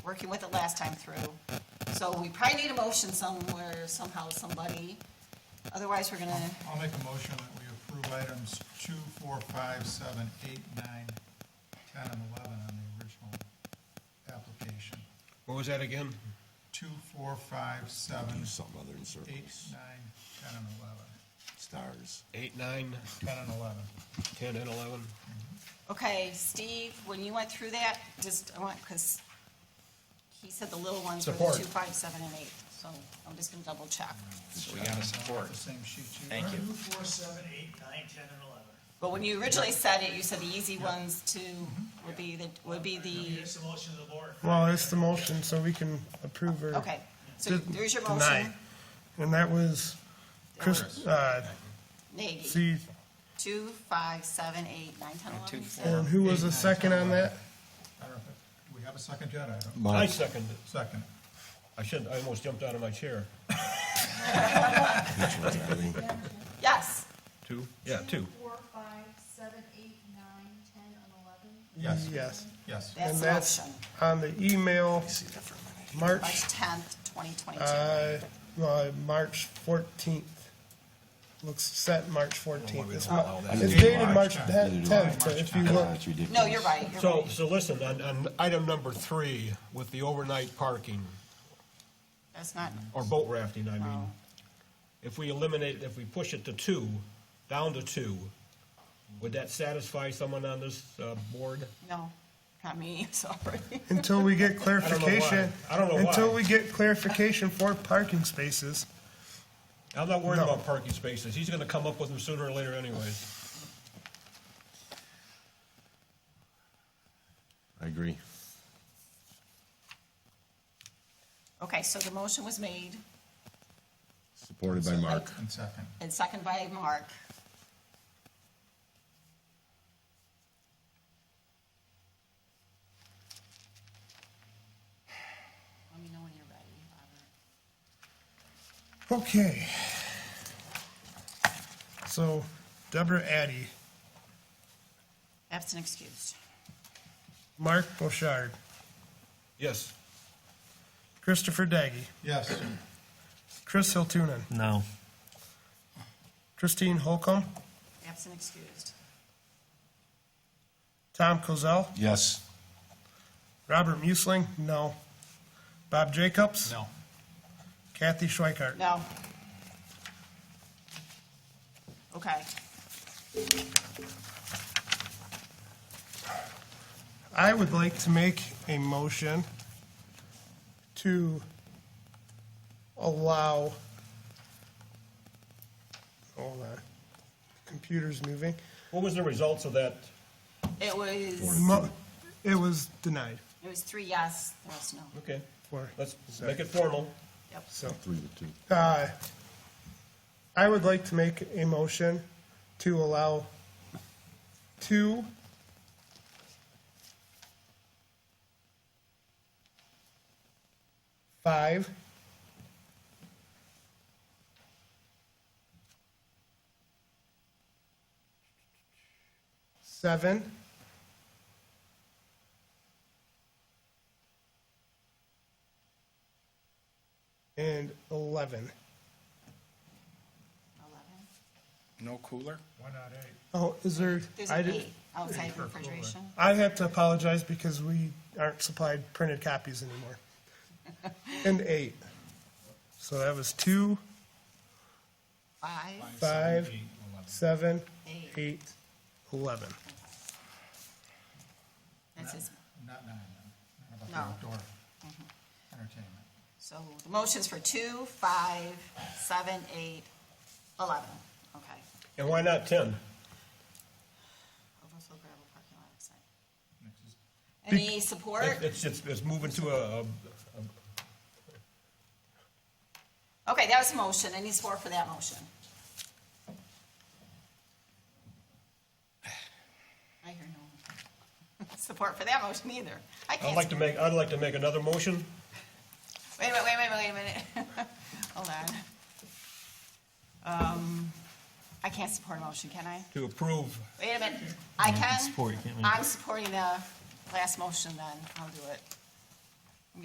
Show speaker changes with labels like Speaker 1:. Speaker 1: working with it last time through. So we probably need a motion somewhere, somehow, somebody. Otherwise, we're gonna,
Speaker 2: I'll make a motion that we approve items two, four, five, seven, eight, nine, ten, and eleven on the original application.
Speaker 3: What was that again?
Speaker 2: Two, four, five, seven,
Speaker 4: do something other than circles.
Speaker 2: eight, nine, ten, and eleven.
Speaker 4: Stars.
Speaker 3: Eight, nine,
Speaker 2: Ten and eleven.
Speaker 3: ten, and eleven?
Speaker 1: okay, Steve, when you went through that, just, I want, because he said the little ones were the
Speaker 5: Support.
Speaker 1: two, five, seven, and eight, so I'm just gonna double check.
Speaker 6: So we gotta
Speaker 2: Got
Speaker 6: support.
Speaker 2: The same sheet you.
Speaker 6: Thank you.
Speaker 7: Two, four, seven, eight, nine, ten, and eleven.
Speaker 1: But when you originally said it, you said the easy ones to, would be the, would be the,
Speaker 7: Here's the motion of the board.
Speaker 5: Well, it's the motion, so we can approve or.
Speaker 1: okay. So
Speaker 5: de-
Speaker 1: there's your
Speaker 5: deny.
Speaker 1: motion,
Speaker 5: And that was Chris, uh,
Speaker 1: Nagy,
Speaker 5: see,
Speaker 1: two, five, seven, eight, nine, ten, eleven.
Speaker 6: two,
Speaker 1: you said?
Speaker 6: four.
Speaker 5: and who was the second on that?
Speaker 2: I don't know, if- do we have a second yet? I don't.
Speaker 3: I
Speaker 4: Mike,
Speaker 3: second it.
Speaker 2: Second.
Speaker 3: I should, I almost jumped out of my chair.
Speaker 4: Billy,
Speaker 1: Yes,
Speaker 3: Two? Yeah, two.
Speaker 8: Four, five, seven, eight, nine, ten, and eleven.
Speaker 2: Yes.
Speaker 5: Yes,
Speaker 2: Yes.
Speaker 1: that's
Speaker 5: And
Speaker 1: the
Speaker 5: that's-
Speaker 1: motion,
Speaker 5: on the email,
Speaker 4: see that for a minute.
Speaker 5: March,
Speaker 1: March tenth, twenty twenty-two.
Speaker 5: uh, uh, March fourteenth. Looks set March fourteenth. It's
Speaker 3: allow
Speaker 5: mo-
Speaker 3: that.
Speaker 5: it's dated
Speaker 2: March
Speaker 5: March
Speaker 4: tenth.
Speaker 5: tenth, but if you look,
Speaker 4: That's ridiculous.
Speaker 1: No, you're right, you're
Speaker 3: So,
Speaker 1: right.
Speaker 3: so listen, on, on item number three, with the overnight parking,
Speaker 1: That's not,
Speaker 3: or boat rafting, I mean,
Speaker 1: Wow.
Speaker 3: if we eliminate, if we push it to two, down to two, would that satisfy someone on this, uh, board?
Speaker 1: no, not me, sorry.
Speaker 5: until we get
Speaker 3: know why.
Speaker 5: clarification.
Speaker 3: I don't know why.
Speaker 5: Until we get clarification for parking spaces.
Speaker 3: I'm not worried
Speaker 5: No.
Speaker 3: about parking spaces. He's gonna come up with them sooner or later anyways.
Speaker 4: I agree.
Speaker 1: Okay, so the motion was made
Speaker 4: Supported by Mark.
Speaker 2: And second.
Speaker 1: and seconded by Mark. Let me know when you're ready, Robert.
Speaker 5: Okay. So Deborah Addy,
Speaker 1: Absent excused.
Speaker 5: Mark Bouchard,
Speaker 3: Yes.
Speaker 5: Christopher Daggy,
Speaker 2: Yes.
Speaker 5: Chris Hiltunen,
Speaker 7: No.
Speaker 5: Christine Holcomb,
Speaker 1: Absent excused.
Speaker 5: Tom Kozel,
Speaker 4: Yes.
Speaker 5: Robert Musling, no. Bob Jacobs,
Speaker 2: No.
Speaker 5: Kathy Schweikart.
Speaker 1: No. Okay,
Speaker 5: I would like to make a motion to allow, hold on, computer's moving.
Speaker 3: What was the results of that?
Speaker 1: it was,
Speaker 5: Mo- It was denied,
Speaker 1: it was three yes, there was no,
Speaker 3: Okay,
Speaker 5: for,
Speaker 3: let's make it formal.
Speaker 1: yep.
Speaker 5: so.
Speaker 4: Three to two.
Speaker 5: Uh, I would like to make a motion to allow two five seven and 11
Speaker 1: Eleven.
Speaker 6: No cooler?
Speaker 2: Why not eight?
Speaker 5: Oh, is there?
Speaker 1: There's
Speaker 5: I
Speaker 1: an
Speaker 5: did-
Speaker 1: eight outside refrigeration.
Speaker 5: I have to apologize because we aren't supplied printed copies anymore. And eight. So that was two,
Speaker 1: Five,
Speaker 5: five,
Speaker 2: Eight, eleven.
Speaker 5: seven,
Speaker 1: Eight.
Speaker 5: eight, eleven.
Speaker 1: that's his,
Speaker 2: Not nine, then. Not
Speaker 1: No.
Speaker 2: about the outdoor entertainment.
Speaker 1: so the motion's for two, five, seven, eight, eleven, okay.
Speaker 3: And why not ten?
Speaker 1: Overflow gravel parking lot outside.
Speaker 2: Next is-
Speaker 1: Any support?
Speaker 3: It- It's, it's, it's moving to a, a-
Speaker 1: Okay, that was a motion, any support for that motion? I hear no support for that motion either. I
Speaker 3: I'd
Speaker 1: can't,
Speaker 3: like to make, I'd like to make another motion.
Speaker 1: wait a minute, wait a minute, wait a minute. Hold on. Um, I can't support a motion, can I?
Speaker 3: to approve.
Speaker 1: Wait a minute, I can, I'm supporting the last motion then, I'll do it.